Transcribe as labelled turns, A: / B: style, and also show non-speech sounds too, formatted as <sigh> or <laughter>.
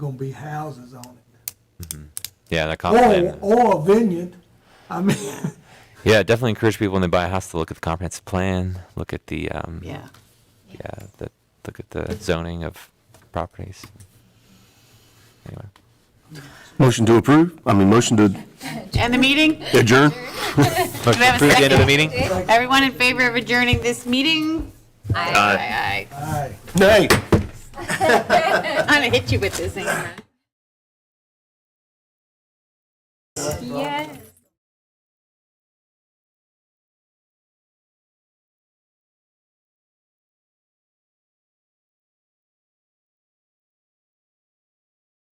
A: gonna be houses on it.
B: Yeah, that comp
A: Or,
B: plan.
A: or a vineyard, I mean, <laughs>
B: Yeah, definitely encourage people when they buy a house to look at the comprehensive plan, look at the, um,
C: Yeah.
B: yeah, the, look at the zoning of properties. Anyway.
D: Motion to approve, I mean, motion to
C: End the meeting?
D: adjourn?
B: Motion
C: have a
B: approved, the end of the meeting?
C: Everyone in favor of adjourning this meeting? Aye. Aye,
A: aye.
D: Nay.
C: aye. I'm gonna hit you with this, hang on. Yes.